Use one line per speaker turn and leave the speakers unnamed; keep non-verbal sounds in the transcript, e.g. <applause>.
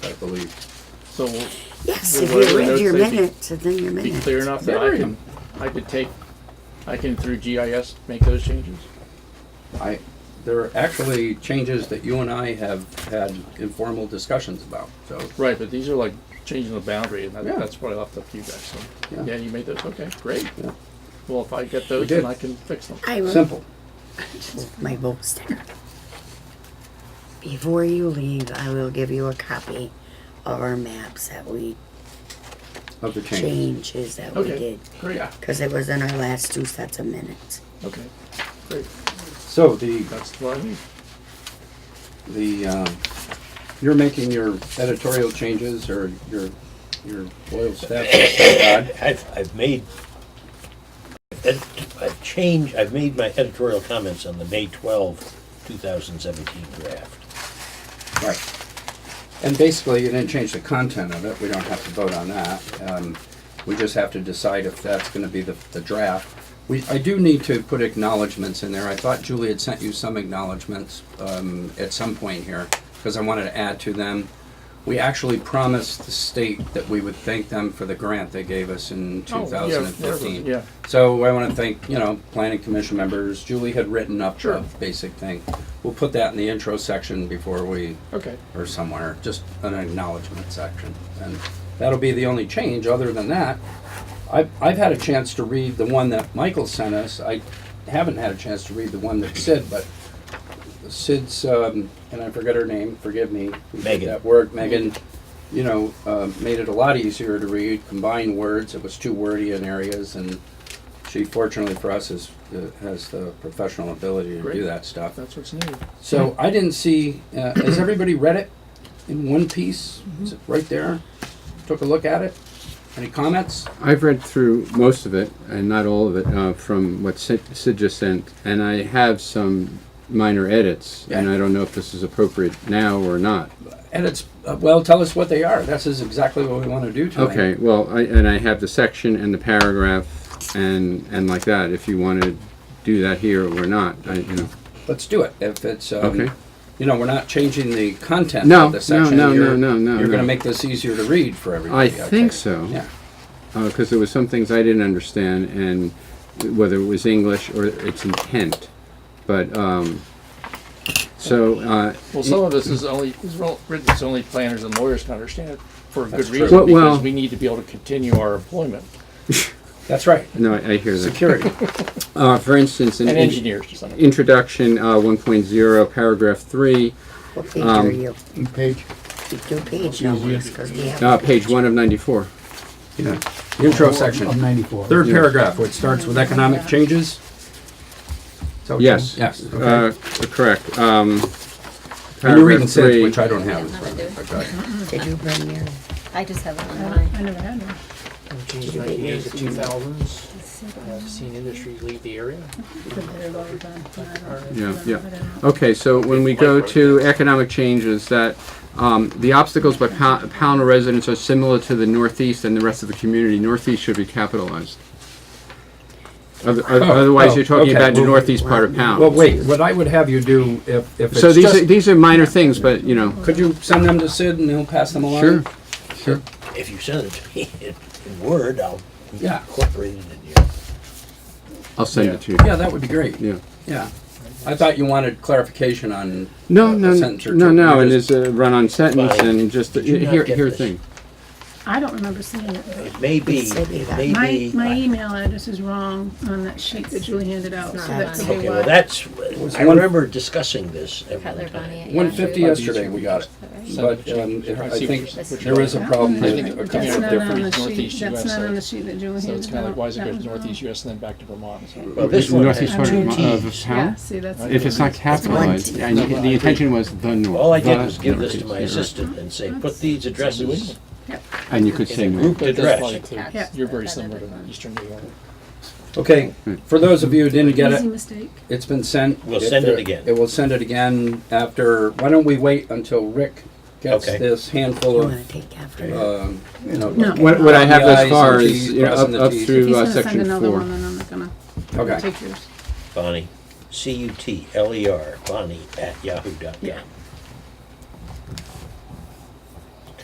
I believe.
So
Yes,
Well,
if
whatever
you read
notes
your
they be-
minutes, and then your
be
minutes.
clear enough that I can, I can take, I can through GIS make those changes?
I, there are actually changes that you and I have had informal discussions about, so.
Right, but these are like changing the boundary, and that,
Yeah.
that's what I left up to you guys, so,
Yeah.
yeah, you made those, okay, great.
Yeah.
Well, if I get those,
did.
then I can fix them.
I wrote
Simple.
my bowl sticker. Before you leave, I will give you a copy of our maps that we
Of the changes.
changes that we
Okay,
did
great,
because it was in our last two sets of minutes.
okay, great,
So the,
that's what I need.
the, um, you're making your editorial changes or your, your loyal staff. Todd?
I've, I've made, I've I've changed, I've made my editorial comments on the May 12, 2017 draft.
Right. And basically, you didn't change the content of it, we don't have to vote on that. Um, We just have to decide if that's gonna be the, the draft. We, I do need to put acknowledgements in there, I thought Julie had sent you some acknowledgements um, at some point here, because I wanted to add to them. We actually promised the state that we would thank them for the grant they gave us in
Oh, yeah,
2015.
yeah.
So I want to thank, you know, planning commission members, Julie had written up
Sure.
a basic thing. We'll put that in the intro section before we
Okay,
or somewhere, just an acknowledgement section. And that'll be the only change. Other than that, I've, I've had a chance to read the one that Michael sent us. I haven't had a chance to read the one that Sid, but Sid's, um, and I forget her name, forgive me. we did
Megan.
That word, Megan, you know, uh, made it a lot easier to read, combined words. It was too wordy in areas and she fortunately for us is, uh, has the professional ability to do
Great.
that stuff.
that's what's needed.
So I didn't see, uh, has everybody read it in one piece?
Mm-hmm.
Is it right there? Took a look at it? Any comments?
I've read through most of it, and not all of it, uh, from what Sid, Sid just sent, and I have some minor edits, and
Yeah.
I don't know if this is appropriate now or not.
And it's, uh, well, tell us what they are. This is exactly what we want to do tonight.
Okay, well, I, and I have the section and the paragraph and and like that. If you want to do that here or not, I, you know.
Let's do it. If it's,
Okay.
um, you know, we're not changing the content
No,
of
no,
the section.
no, no,
You're-
no, no,
You're going to
no.
make this easier to read for everybody.
think so.
Yeah.
because there was some things I didn't understand, and whether it was English or its intent. But um, so uh,
Well, some of this is only, is wr- written so only planners and lawyers can understand it for a good
That's true.
reason,
Well, well-
because we need to be able to continue our employment,
That's right.
no, I, I hear that.
Security.
Uh, for instance, in,
and
in-
engineers to some extent.
introduction uh, 1.0, paragraph three,
What page are
Um,
you?
<laughs> Page,
You do page numbers because we have.
uh, page one of 94.
Yeah. Intro section.
of ninety-four.
Third
Yeah.
paragraph, which starts with economic changes. So-
Yes.
Yes. okay.
Uh, correct. Um,
And you're reading
paragraph
Sid's,
three.
which I don't have. in
Yeah,
front of me. Okay.
Did you bring your?
I just have it
I
online.
never had one.
Did you get
Nineties,
yours?
two thousands, I've seen industry leave the area.
Been there a long time. I don't-
Yeah,
I
yeah.
don't know.
Okay, so when we go to economic changes, that, um, the obstacles by Pow- Pownell residents are similar to the Northeast and the rest of the community. Northeast should be capitalized. Oth- oth- Otherwise, you're
oh,
talking
okay,
about the
well-
Northeast part of
Well,
Pownell.
wait, what I would have you do, if, if
So
it's
these are,
just,
these are minor things, but, you know,
could you send them to Sid and he'll pass them along?
sure, sure.
If you send it to me <laughs> in- in Word, I'll
Yeah.
incorporate it in here.
I'll send it to you.
Yeah, that would be great.
Yeah.
Yeah. I thought you wanted clarification on.
No,
a
no,
sentence or
no,
two.
no,
You're
and
just-
it's a run-on sentence
Fine.
and just, uh,
Did you not
here,
get
here
this?
thing.
I don't remember seeing it.
It may be,
It's maybe
it
that-
may
My,
be.
my email address is wrong on that sheet that Julie handed out, so that could
Okay,
be
well,
why.
that's, I remember discussing this every
Cutler Bonnie.
time.
at Yahoo.
150 yesterday we got it,
Is that right?
but um, it- I
see
think
what you're-
there is a problem
I
with
think
a
it's
couple of
That's not on the
different.
sheet,
Northeast US
that's not on
side.
the sheet that Julie handed out.
So it's kind of like, why is it
That
go to
was wrong.
northeast US and then back to Vermont? So-
Well, this one
Northeast
has
part
two
of Mo- of
Ts.
Yeah,
Pownell?
see, that's.
If it's not capitalized, and the intention was the North.
All I did was
the
give this to
Northeast,
my
you're right.
assistant and say, put these addresses
And you could
in a
say North.
grouped
But that's
address.
probably too-
Yeah.
You're very similar to Eastern New York.
Okay, for those of you who didn't get
Easy
it,
mistake.
it's been sent.
We'll
If
send it
there-
again.
It will send it again after, why don't we wait until Rick gets
Okay.
this handful
You wanna
of,
take after?
um, you know.
No.
What, what I have thus
Crossing the
far
Ts
is, you know, up,
and
up
Ts.
If
through
he's
uh,
gonna send
section
another one,
four.
then I'm not gonna
Okay.
take yours.
Bonnie, C-U-T-L-E-R, Bonnie E at yahoo dot com.
Yeah.